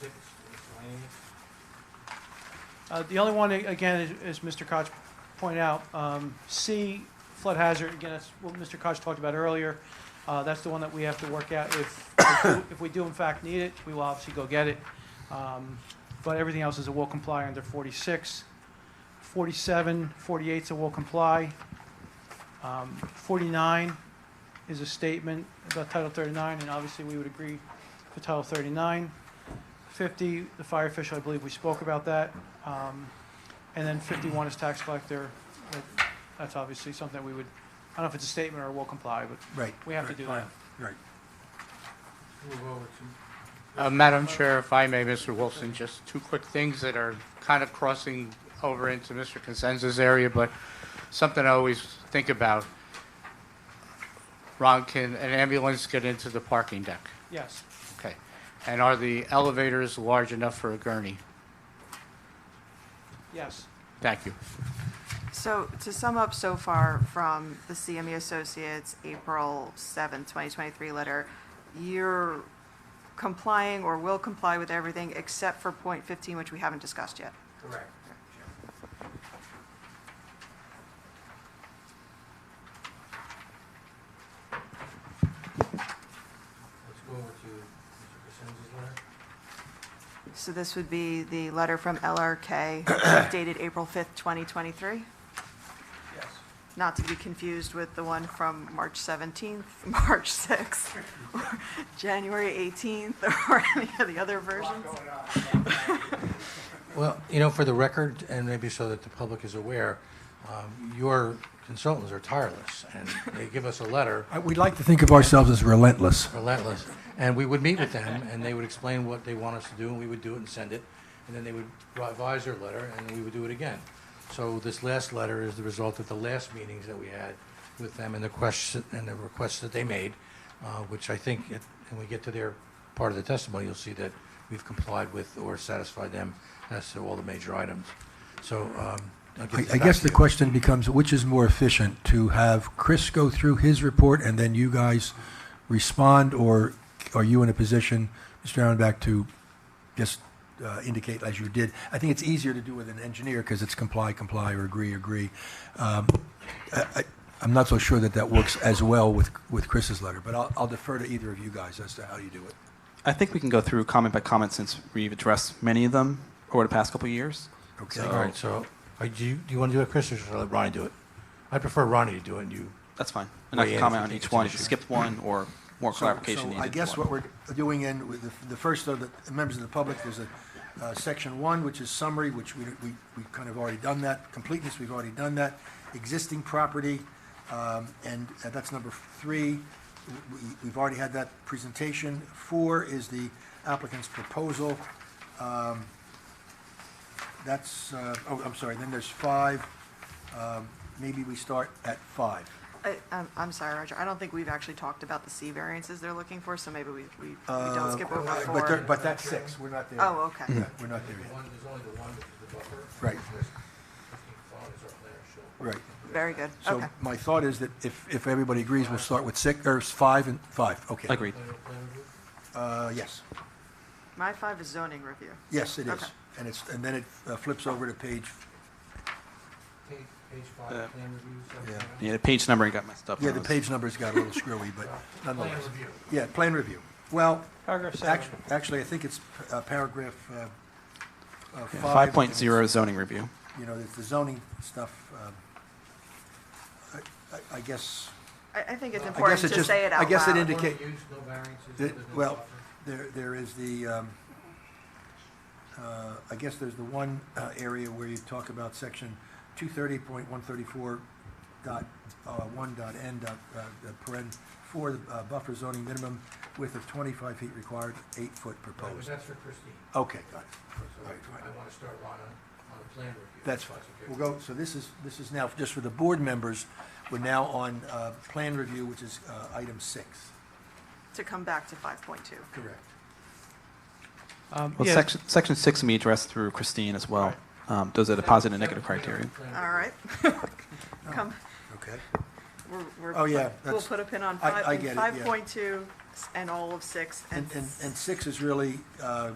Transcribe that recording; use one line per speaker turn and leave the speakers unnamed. six miscellaneous.
Uh, The only one, again, is- is Mr. Koch pointed out, um, C, flood hazard, again, that's what Mr. Koch talked about earlier. Uh, That's the one that we have to work out. If, if we- if we do in fact need it, we will obviously go get it. Um, But everything else is a will comply under 46. 47, 48 is a will comply. Um, 49 is a statement about Title 39, and obviously we would agree for Title 39. 50, the fire official, I believe we spoke about that. Um, And then 51 is tax collector. That- That's obviously something that we would, I don't know if it's a statement or we'll comply, but
Right.
we have to do that.
Right.
Move over to,
Uh, Madam Chair, if I may, Mr. Wilson, just two quick things that are kind of crossing over into Mr. Consenza's area, but something I always think about. Ron, can an ambulance get into the parking deck?
Yes,
Okay. And are the elevators large enough for a gurney?
yes.
Thank you.
So to sum up so far from the CME Associates April 7th, 2023 letter, you're complying or will comply with everything except for point 15, which we haven't discussed yet.
correct. Let's go over to Mr. Crescenzo's letter.
So this would be the letter from LRK dated April 5th, 2023,
Yes.
not to be confused with the one from March 17th, March 6th, or January 18th, or any of the other versions.
Well, you know, for the record, and maybe so that the public is aware, um, your consultants are tireless, and they give us a letter,
I- We like to think of ourselves as relentless.
relentless, and we would meet with them, and they would explain what they want us to do, and we would do it and send it, and then they would revise their letter, and we would do it again. So this last letter is the result of the last meetings that we had with them and the question, and the requests that they made, uh, which I think, it- when we get to their part of the testimony, you'll see that we've complied with or satisfied them as to all the major items. So, um, I'll give
I
this
I
back
guess
to
the
you.
question becomes, which is more efficient, to have Chris go through his report and then you guys respond, or are you in a position, Mr. Aronback, to just uh, indicate as you did? I think it's easier to do with an engineer, because it's comply, comply, or agree, agree. Um, I- I- I'm not so sure that that works as well with, with Chris's letter, but I'll I'll defer to either of you guys as to how you do it.
I think we can go through comment by comment since we've addressed many of them over the past couple of years.
Okay.
All right, so, uh, do you, do you want to do it, Chris, or should I let Ronnie do it? I prefer Ronnie to do it, and you
That's fine. And I
Weigh
can
in
comment
if
on
you think
each
it's
one
an
if you
issue.
skipped one or more
So-
clarification
So
needed.
I
for
guess
one.
what we're doing in, with the- the first of the members of the public, there's a uh, section one, which is summary, which we, we we kind of already done that. Completeness, we've already done that. Existing property, um, and uh, that's number three. We- We've already had that presentation. Four is the applicant's proposal. Um, That's, uh, oh, I'm sorry, then there's five. Um, Maybe we start at five.
I, I'm, I'm sorry, Roger, I don't think we've actually talked about the C variances they're looking for, so maybe we, we, we don't skip over
Uh, But, there-
four.
but that's six, we're not there.
Oh, okay.
Yeah, We're not there yet.
One, there's only the one, which is the buffer.
Right.
There's 15 followers up there, so-
Right.
Very good,
So
okay.
my thought is that if, if everybody agrees, we'll start with six, or five and five, okay.
Agreed.
Uh, yes,
My five is zoning review.
yes, it is.
Okay.
And it's, and then it uh, flips over to page,
Page, page
Uh,
five, plan review, section.
Yeah.
nine.
Yeah, the page numbering got messed up.
yeah,
when I
the
was-
page numbers got a little screwy, but
Plan
nonetheless.
review.
Yeah, plan review. Well,
Paragraph seven.
actu- actually, I think it's uh, paragraph uh, uh,
Yeah,
five.
5.0 zoning review.
You know, it's the zoning stuff, um, I- I- I guess,
I, I think it's
I guess
important
it
to
just-
say it
I
out
guess it
loud.
indi- Indicate-
No use, no variances,
The-
other than
well,
buffer.
There, there is the, um, uh, I guess there's the one uh, area where you talk about section 230.134 dot, uh, 1 dot n dot, uh, uh, paren, for the uh, buffer zoning minimum width of 25 feet required, 8 foot
Right, but
proposed.
That's for Christine.
Okay, got it.
So
All right, fine.
I want to start Ron on, on a plan review.
That's fine.
okay.
We'll go, so this is, this is now, just for the board members, we're now on uh, plan review, which is uh, item 6.
To come back to five point two.
Correct.
Um,
Well,
yeah,
section, section 6 can be addressed through Christine as well. Um, those are the positive and negative
Seven,
criteria.
plan
All
review.
right. Come,
Okay.
we're, we're.
Oh, yeah,
We'll
that's-
put a pin on
I-
five,
I get it, yeah.
five point two and all of six and.
And, and and 6 is really uh,